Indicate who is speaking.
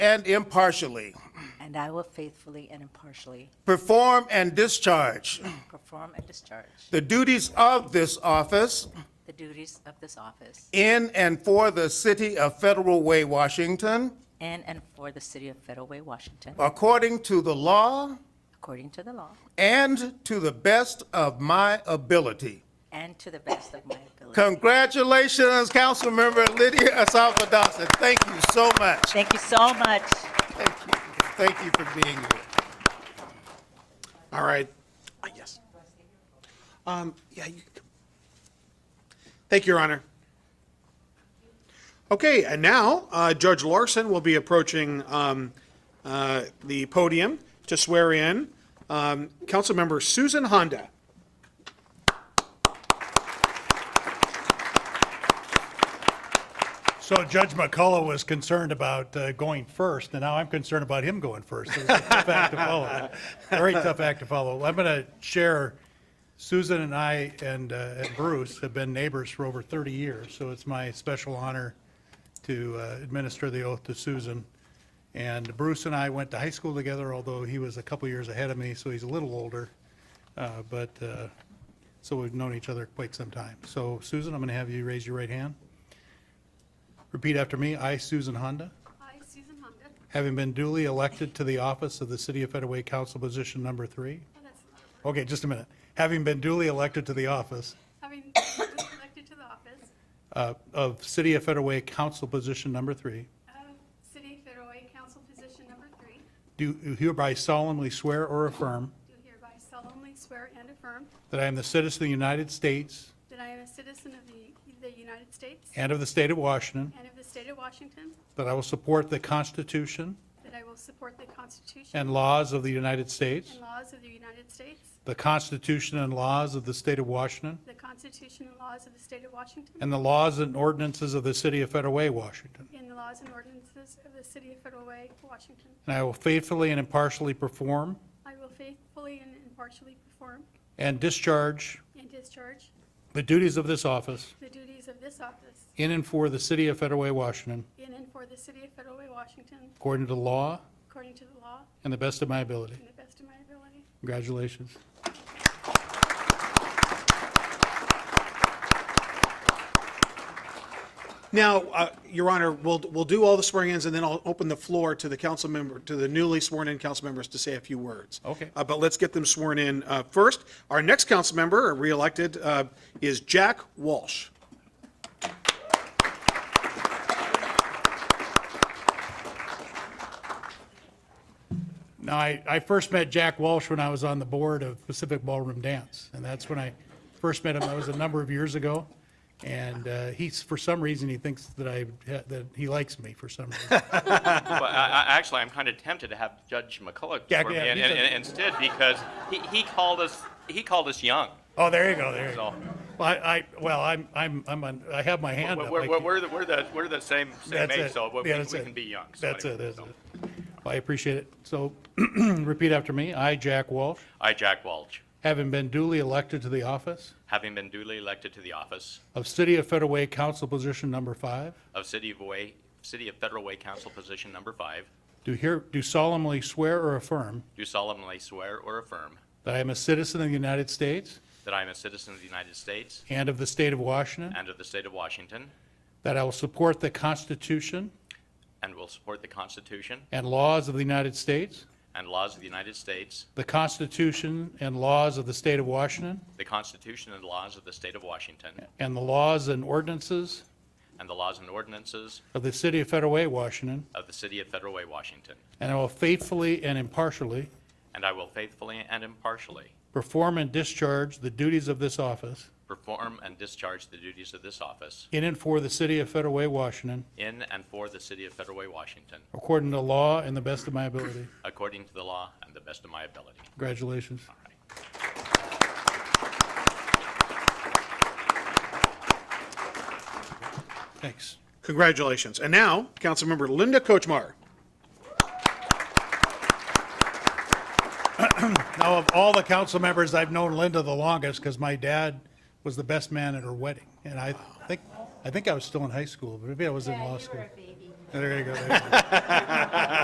Speaker 1: and impartially
Speaker 2: and I will faithfully and impartially
Speaker 1: perform and discharge
Speaker 2: perform and discharge
Speaker 1: the duties of this office
Speaker 2: the duties of this office
Speaker 1: in and for the city of Federal Way, Washington,
Speaker 2: in and for the city of Federal Way, Washington,
Speaker 1: according to the law
Speaker 2: according to the law
Speaker 1: and to the best of my ability.
Speaker 2: and to the best of my ability.
Speaker 1: Congratulations, Councilmember Lydia Asafa-Dawson. Thank you so much.
Speaker 2: Thank you so much.
Speaker 1: Thank you. Thank you for being here.
Speaker 3: All right. Uh, Yes. Um, yeah, you can come. Thank you, Your Honor. Okay, and now uh, Judge Larson will be approaching um, uh, the podium to swear in um, Councilmember Susan Honda.
Speaker 4: So Judge McCullough was concerned about uh, going first, and now I'm concerned about him going first. It's a tough act to follow. Very tough act to follow. I'm going to share, Susan and I and uh, and Bruce have been neighbors for over 30 years, so it's my special honor to uh, administer the oath to Susan. And Bruce and I went to high school together, although he was a couple years ahead of me, so he's a little older. Uh, But, uh, so we've known each other quite some time. So Susan, I'm going to have you raise your right hand. Repeat after me. I, Susan Honda,
Speaker 5: I, Susan Honda,
Speaker 4: having been duly elected to the office of the City of Federal Council Position Number Three.
Speaker 5: and that's another word,
Speaker 4: Okay, just a minute. Having been duly elected to the office
Speaker 5: having been elected to the office
Speaker 4: uh, of City of Federal Council Position Number Three,
Speaker 5: of City of Federal Council Position Number Three,
Speaker 4: do hereby solemnly swear or affirm
Speaker 5: do hereby solemnly swear and affirm
Speaker 4: that I am the citizen of the United States
Speaker 5: that I am a citizen of the, the United States
Speaker 4: and of the State of Washington,
Speaker 5: and of the state of Washington,
Speaker 4: that I will support the Constitution
Speaker 5: that I will support the Constitution
Speaker 4: and laws of the United States,
Speaker 5: and laws of the United States,
Speaker 4: the Constitution and laws of the State of Washington,
Speaker 5: the Constitution and laws of the state of Washington,
Speaker 4: and the laws and ordinances of the City of Federal Washington.
Speaker 5: and the laws and ordinances of the City of Federal Way, Washington.
Speaker 4: And I will faithfully and impartially perform
Speaker 5: I will faithfully and impartially perform
Speaker 4: and discharge
Speaker 5: and discharge
Speaker 4: the duties of this office
Speaker 5: the duties of this office
Speaker 4: in and for the city of Federal Way, Washington,
Speaker 5: in and for the City of Federal Way, Washington,
Speaker 4: according to law
Speaker 5: according to the law
Speaker 4: and the best of my ability.
Speaker 5: To the best of my ability.
Speaker 4: Congratulations.
Speaker 3: Now, uh, Your Honor, we'll, we'll do all the swearing-ins, and then I'll open the floor to the council member, to the newly sworn-in council members to say a few words.
Speaker 4: Okay.
Speaker 3: Uh, But let's get them sworn in uh, first. Our next council member, re-elected, uh, is Jack Walsh.
Speaker 4: Now, I, I first met Jack Walsh when I was on the board of Pacific Ballroom Dance, and that's when I first met him. That was a number of years ago. And uh, he's, for some reason, he thinks that I, that he likes me for some reason.
Speaker 6: Well, I, I, actually, I'm kind of tempted to have Judge McCullough
Speaker 4: Yeah,
Speaker 6: for me
Speaker 4: yeah,
Speaker 6: and,
Speaker 4: he's
Speaker 6: and,
Speaker 4: a-
Speaker 6: and instead because he, he called us he called us young.
Speaker 4: Oh, there you go, there you go.
Speaker 6: So
Speaker 4: Well, I, I- well, I'm, I'm, I'm on- I have my hand
Speaker 6: we're,
Speaker 4: up.
Speaker 6: we're,
Speaker 4: I
Speaker 6: we're,
Speaker 4: can't-
Speaker 6: the, we're the we're the same same
Speaker 4: That's
Speaker 6: age,
Speaker 4: it.
Speaker 6: so we,
Speaker 4: Yeah,
Speaker 6: we,
Speaker 4: that's
Speaker 6: we
Speaker 4: it.
Speaker 6: can be young. So
Speaker 4: That's it,
Speaker 6: anyway,
Speaker 4: that's
Speaker 6: so.
Speaker 4: it. Well, I appreciate it. So repeat after me. I, Jack Walsh,
Speaker 6: I, Jack Walsh,
Speaker 4: having been duly elected to the office
Speaker 6: having been duly elected to the office
Speaker 4: of City of Federal Way Council Position Number Five,
Speaker 6: of City of Way City of Federal Way Council Position Number Five,
Speaker 4: do here, do solemnly swear or affirm
Speaker 6: do solemnly swear or affirm
Speaker 4: that I am a citizen of the United States
Speaker 6: that I am a citizen of the United States
Speaker 4: and of the state of Washington,
Speaker 6: and of the State of Washington,
Speaker 4: that I will support the Constitution
Speaker 6: and will support the Constitution
Speaker 4: and laws of the United States,
Speaker 6: and laws of the United States,
Speaker 4: the Constitution and laws of the state of Washington,
Speaker 6: the Constitution and laws of the State of Washington,
Speaker 4: and the laws and ordinances
Speaker 6: and the laws and ordinances
Speaker 4: of the City of Federal Way, Washington,
Speaker 6: of the City of Federal Way, Washington,
Speaker 4: and I will faithfully and impartially
Speaker 6: and I will faithfully and impartially
Speaker 4: perform and discharge the duties of this office
Speaker 6: perform and discharge the duties of this office
Speaker 4: in and for the City of Federal Way, Washington,
Speaker 6: in and for the City of Federal Way, Washington,
Speaker 4: according to law and the best of my ability.
Speaker 6: according to the law and the best of my ability.
Speaker 4: Congratulations. Thanks.
Speaker 3: Congratulations. And now, Councilmember Linda Kochmar.
Speaker 4: Now, of all the council members, I've known Linda the longest because my dad was the best man at her wedding. And I think, I think I was still in high school, but maybe I was in law school. There you go. there you go.